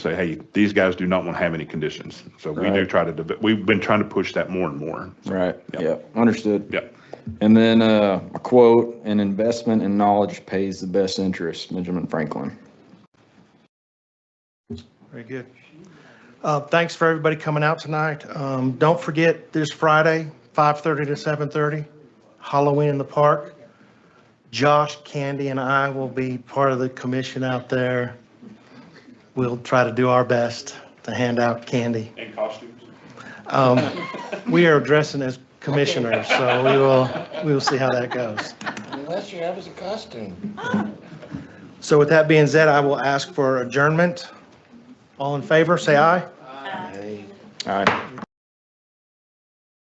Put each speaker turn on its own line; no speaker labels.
say, hey, these guys do not want to have any conditions. So we do
Right.
try to, deve- we've been trying to push that more and more.
Right,
Yep.
yeah, understood.
Yep.
And then uh, a quote, "An investment in knowledge pays the best interest," Benjamin Franklin.
Very good. Uh, Thanks for everybody coming out tonight. Um, Don't forget, this Friday, 5:30 to 7:30, Halloween in the park. Josh, Candy, and I will be part of the commission out there. We'll try to do our best to hand out candy.
And costumes.
Um, We are dressing as commissioners, so we will, we will see how that goes.
Unless you have as a costume.
So with that being said, I will ask for adjournment. All in favor, say aye.
Hey.
All right.